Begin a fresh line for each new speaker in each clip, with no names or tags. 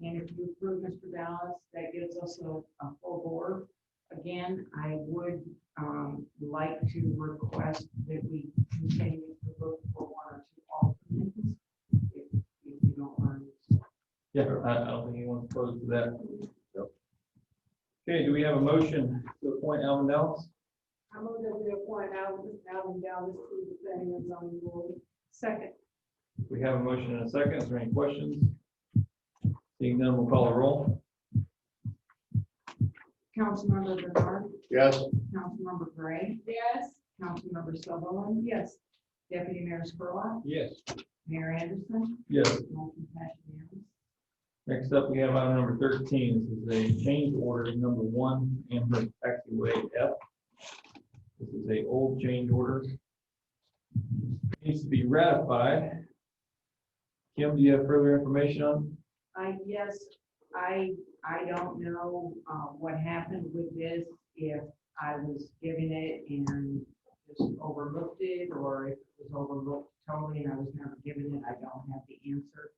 And if you approve Mr. Ballas, that gives us a, a full board. Again, I would, um, like to request that we continue to look for one or two alternates. If, if you don't mind.
Yeah, I, I don't think anyone's opposed to that. Okay, do we have a motion to appoint Alan Nellis?
I move that we appoint Alan, Alan Dallas to the planning and zoning board. Second.
We have a motion and a second. Is there any questions? Seeing none, we'll call a roll.
Councilmember Bernard,
Yes.
Councilmember Gray,
Yes.
Councilmember Sutherland. Yes. Deputy Mayor Spurlock,
Yes.
Mayor Anderson.
Yes.
Motion passed unanimously.
Next up, we have item number thirteen. This is a change order number one, Amherst Taxiway F. This is a old change order. Needs to be ratified. Kim, do you have further information on?
I guess, I, I don't know, uh, what happened with this, if I was given it and just overlooked it, or if it was overlooked totally and I was never given it, I don't have the answer.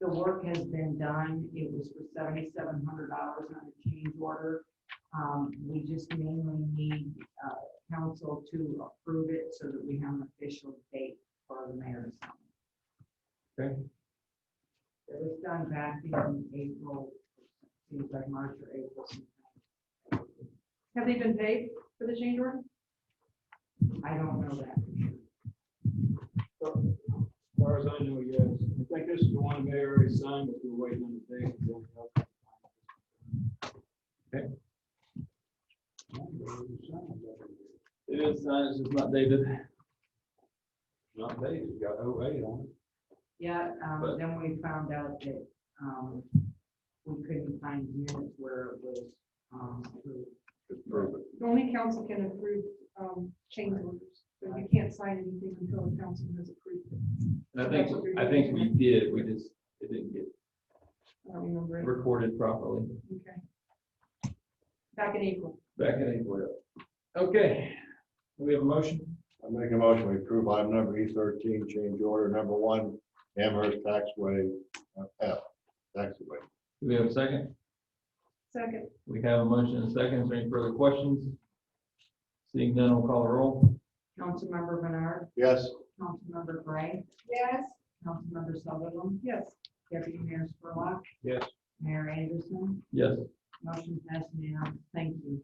The work has been done, it was for seventy-seven hundred dollars on a change order. Um, we just mainly need, uh, council to approve it so that we have an official date for the mayor's.
Okay.
It was done back in April, seems like March or April. sometime.
Have they been paid for the change order?
I don't know that. for sure.
As far as I know, yes. I think this is the one the mayor already signed, but we're waiting on the date.
It is signed, it's just not dated.
Not dated, you got oh eight on
Yeah, um,
But-
then we found out that, um, we couldn't find units where it was, um, approved.
Only council can approve um, change orders, but you can't sign anything until the council has approved it.
And I think, I think we did, we just, it didn't get
I don't remember it.
recorded properly
Okay. Back in April.
back in April. Okay, Do we have a motion.
I make a motion, we approve item number E thirteen, change order number one, Amherst Taxway uh, F, taxway.
Do we have a second?
Second.
We have a motion and a second. Is there any further questions? Seeing none, we'll call a roll.
Councilmember Bernard,
Yes,
Councilmember Gray,
Yes.
Councilmember Sutherland,
Yes.
Deputy Mayor Spurlock.
Yes.
Mayor Anderson,
Yes.
motion passed now, thank you.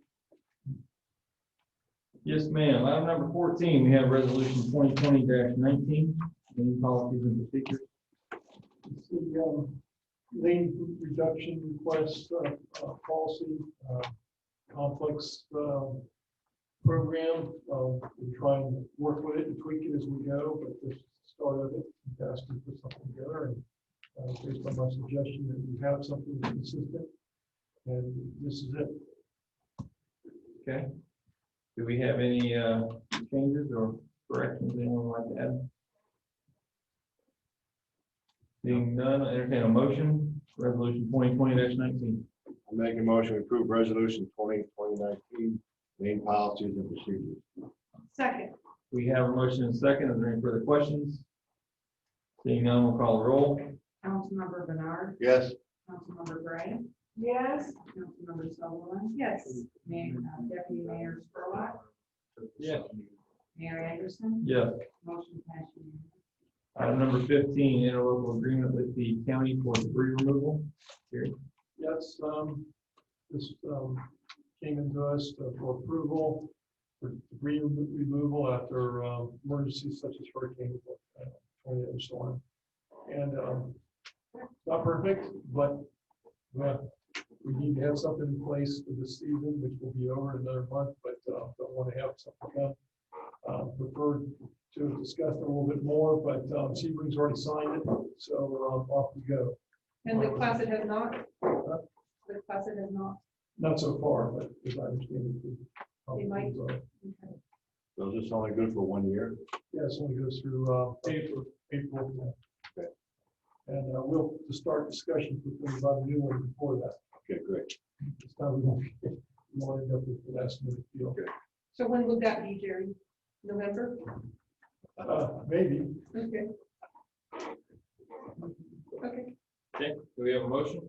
Yes, ma'am. Item number fourteen, we have resolution twenty twenty nineteen, any policies and procedures.
It's the um, lane reduction request uh, uh, policy uh, complex um, program. Uh, We try and work with it and tweak it as we go, but this is the start of it, you guys can put something together. and uh, Based on my suggestion that we have something consistent, and this is it.
Okay. Do we have any, uh, changes or corrections anyone would like to add? Seeing none, I entertain a motion, resolution twenty twenty nineteen.
I make a motion, we approve resolution twenty, twenty nineteen, main policies and procedures.
Second.
We have a motion and a second. Is there any further questions? Seeing none, we'll call a roll.
Councilmember Bernard,
Yes,
Councilmember Gray,
Yes.
Councilmember Sutherland,
Yes.
Mayor, uh, Deputy Mayor Spurlock,
Yes.
Mayor Anderson,
Yes.
motion passed unanimously.
Item number fifteen, interlocal agreement with the county for debris removal. Gary?
Yes, um, this, um, came into us for approval, for debris remo- removal after, um, emergencies such as hurricane, uh, tornado and so on. And, um, not perfect, but, but we need to have something in place for this season, which will be over in another month, but, uh, don't want to have something done. Uh, prefer to discuss it a little bit more, but, um, Sebring's already signed it, so, um, off we go.
And the class it has not? The class it has not?
Not so far, but as I understand it.
They might. Okay.
so is this only good for one year?
Yes, only goes through uh, April, April. uh, And uh, we'll start discussions with them about a new one before that.
Okay, great.
It's time we won't we won't end up with the last minute deal.
So when would that be, Jerry? November?
Uh, Maybe.
Okay. Okay.
Okay, do we have a motion?